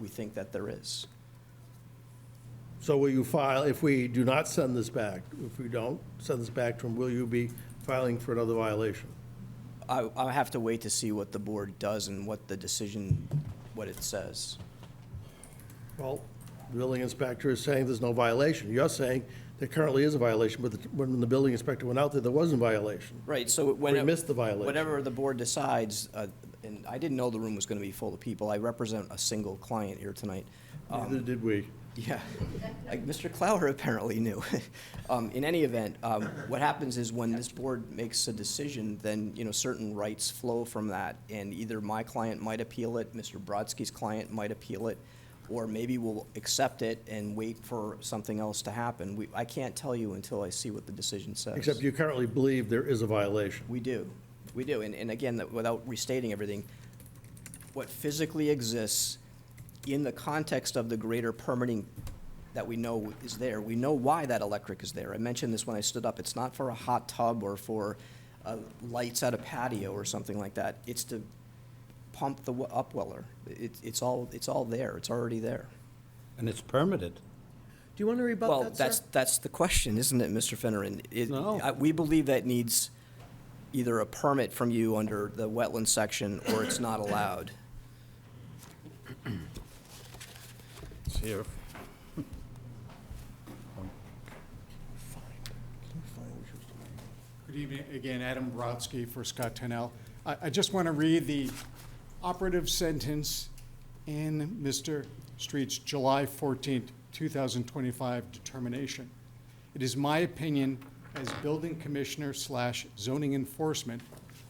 we think that there is. So will you file, if we do not send this back, if we don't send this back to him, will you be filing for another violation? I, I have to wait to see what the board does and what the decision, what it says. Well, the building inspector is saying there's no violation. You're saying there currently is a violation, but the- when the building inspector went out there, there was a violation. Right, so when. We missed the violation. Whatever the board decides, uh, and I didn't know the room was going to be full of people. I represent a single client here tonight. Neither Um, did we. Yeah, like Mr. Clower apparently knew. Um, In any event, um, what happens is when this board makes a decision, then, you know, certain rights flow from that, and either my client might appeal it, Mr. Brodsky's client might appeal it, or maybe we'll accept it and wait for something else to happen. We, I can't tell you until I see what the decision says. Except you currently believe there is a violation. We do, we do, and, and again, that- without restating everything, what physically exists in the context of the greater permitting that we know is there, we know why that electric is there. I mentioned this when I stood up, it's not for a hot tub or for, uh, lights at a patio or something like that. It's to pump the wa- upweller. It, it's all, it's all there, it's already there. And it's permitted. Do you want to rebut Well, that, sir? that's, that's the question, isn't it, Mr. Finneran? It- No. I- We believe that needs either a permit from you under the wetland section, or it's not allowed. It's here. Good evening, again, Adam Brodsky for Scott Tenell. I, I just want to read the operative sentence in Mr. Street's July 14, 2025 determination. It is my opinion as building commissioner slash zoning enforcement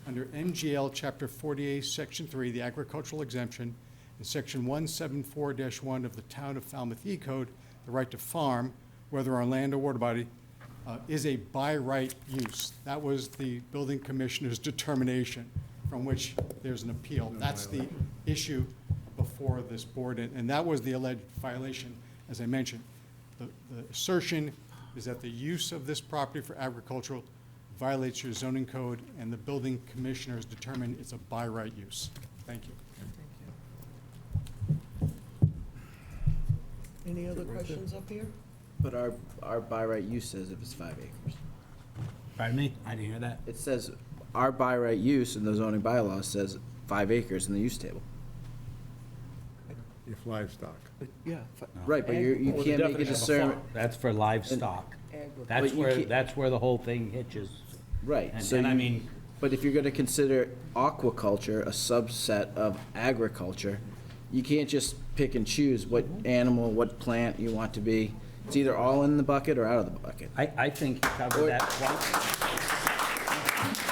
under MGL Chapter 48, Section 3, the agricultural exemption, and Section 174-1 of the Town of Falmouth E Code, the right to farm, whether on land or water body, uh, is a by right use. That was the building commissioner's determination from which there's an appeal. That's the issue before this board, and and that was the alleged violation, as I mentioned. The the assertion is that the use of this property for agricultural violates your zoning code, and the building commissioner has determined it's a by right use. Thank you. Any other questions up here? But our, our by right use says if it's five acres. Pardon me? I didn't hear that. It says our by right use in the zoning bylaws says five acres in the use table. If livestock. Yeah. Right, but you, you can't make a discernment, That's for livestock. That's But you where, can't- that's where the whole thing hitches. right, And so and I you- mean, But if you're gonna consider aquaculture a subset of agriculture, you can't just pick and choose what animal, what plant you want to be. It's either all in the bucket or out of the bucket. I, I think you covered Or- that quite,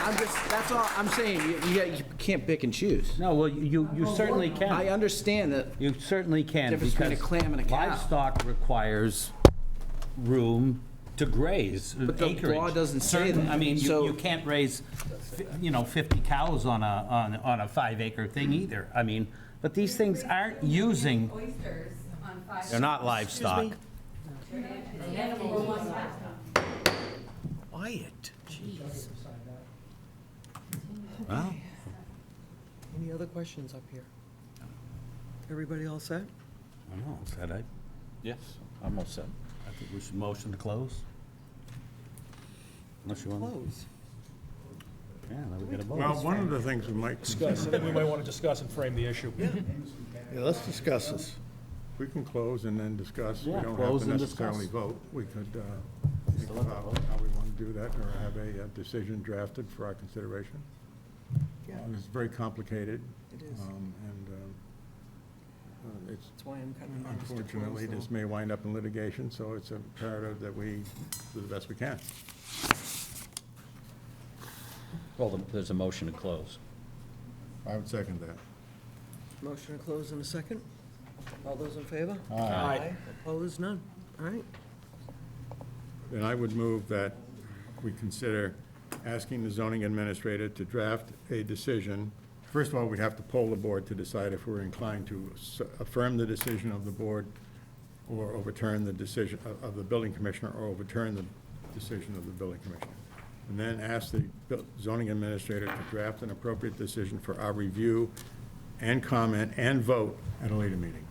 I'm just, that's all I'm saying, you, you, you can't pick and choose. no, well, you, you certainly Oh, I can. understand that, You certainly can, Difference between a because clam and a cow. livestock requires room to graze, uh, acreage. But the law doesn't say Certain- that, I mean, you, so- you can't raise, fi- you know, 50 cows on a, on, on a five acre thing either. I mean, but these things aren't using, Oysters on five. they're not livestock. Quiet, jeez. Well, Any other questions up here? Everybody all set? I don't know, is that it? Yes, I'm all set. I think we should motion to close. Unless you want, Close. yeah, then we get a vote. Well, one of the things we might, discuss, and then we might want to discuss and frame the issue. Yeah, let's discuss this. we can close and then discuss. We Yeah, don't have close to and necessarily discuss. vote. We could uh, think about how we want to do that or have a uh, decision drafted for our consideration. Yeah. It's very complicated. It is. um, And um, uh, it's, That's why I'm kind of nervous to close unfortunately, though. this may wind up in litigation, so it's imperative that we do the best we can. Well, the- there's a motion to close. I would second that. Motion to close in a second. All those in favor? Aye. Opposed, none. All right. Then I would move that we consider asking the zoning administrator to draft a decision. First of all, we'd have to poll the board to decide if we're inclined to s- affirm the decision of the board or overturn the decision uh, of- of the building commissioner or overturn the decision of the building commissioner. And then ask the bu- zoning administrator to draft an appropriate decision for our review and comment and vote at a later meeting.